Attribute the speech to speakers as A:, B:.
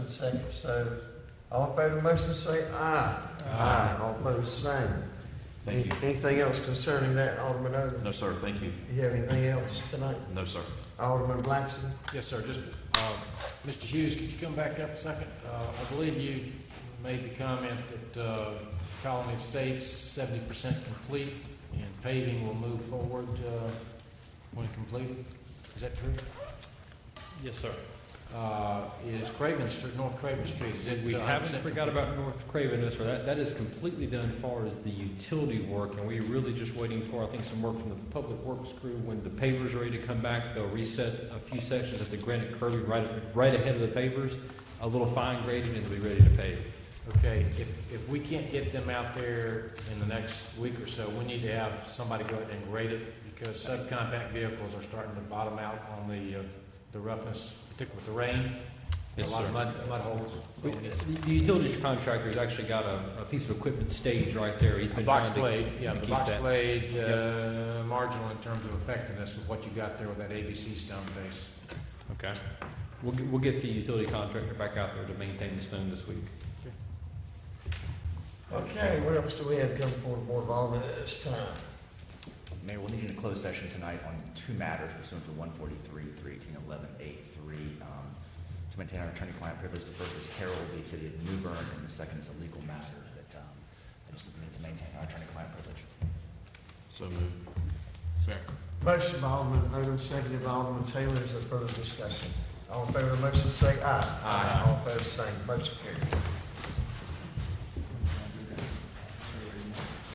A: second, so all in favor of the motion, say aye.
B: Ah.
A: Aye. All opposed, same.
C: Thank you.
A: Anything else concerning that, Alderman Odom?
C: No, sir, thank you.
A: You have anything else tonight?
C: No, sir.
A: Alderman Blackson?
B: Yes, sir, just, uh, Mr. Hughes, could you come back up a second? Uh, I believe you made the comment that uh, Colony Estates seventy percent complete, and paving will move forward uh, when completed. Is that true?
D: Yes, sir.
B: Uh, Is Craven Street, North Craven Street, is it?
D: We
B: uh,
D: haven't
B: 100%
D: forgot
B: complete?
D: about North Craven, no, sir. That, that is completely done as far as the utility work, and we're really just waiting for, I think, some work from the public works crew. When the pavers are ready to come back, they'll reset a few sections of the granite curbing right, right ahead of the pavers, a little fine grading, and they'll be ready to pave.
B: Okay, if, if we can't get them out there in the next week or so, we need to have somebody go ahead and grade it, because subcompact vehicles are starting to bottom out on the, uh, the roughness, particularly with the rain.
D: Yes,
B: A lot
D: sir.
B: of mud, mud holes.
D: We- The the utilities contractor's actually got a, a piece of equipment staged right there. He's
B: The
D: been trying
B: box
D: to.
B: blade, yeah,
D: to
B: the
D: keep
B: box
D: that.
B: blade,
D: Yep.
B: uh, marginal in terms of effectiveness with what you got there with that ABC stone base.
D: Okay. We'll, get- we'll get the utility contractor back out there to maintain the stone this week.
A: Okay, what else do we have coming for the Board of Aldermen at this time?
E: Mayor, we'll need you in a closed session tonight on two matters pursuant to 143, 318, 11, 83, um, to maintain our attorney-client privilege. The first is Harold v. City of New Bern, and the second is a legal matter that, um, I just need to maintain our attorney-client privilege.
C: So moved. Second.
A: Motion by Alderman Odom, seconded by Alderman Taylor, is there further discussion? All in favor of the motion, say aye. Aye. All opposed, same, motion carries.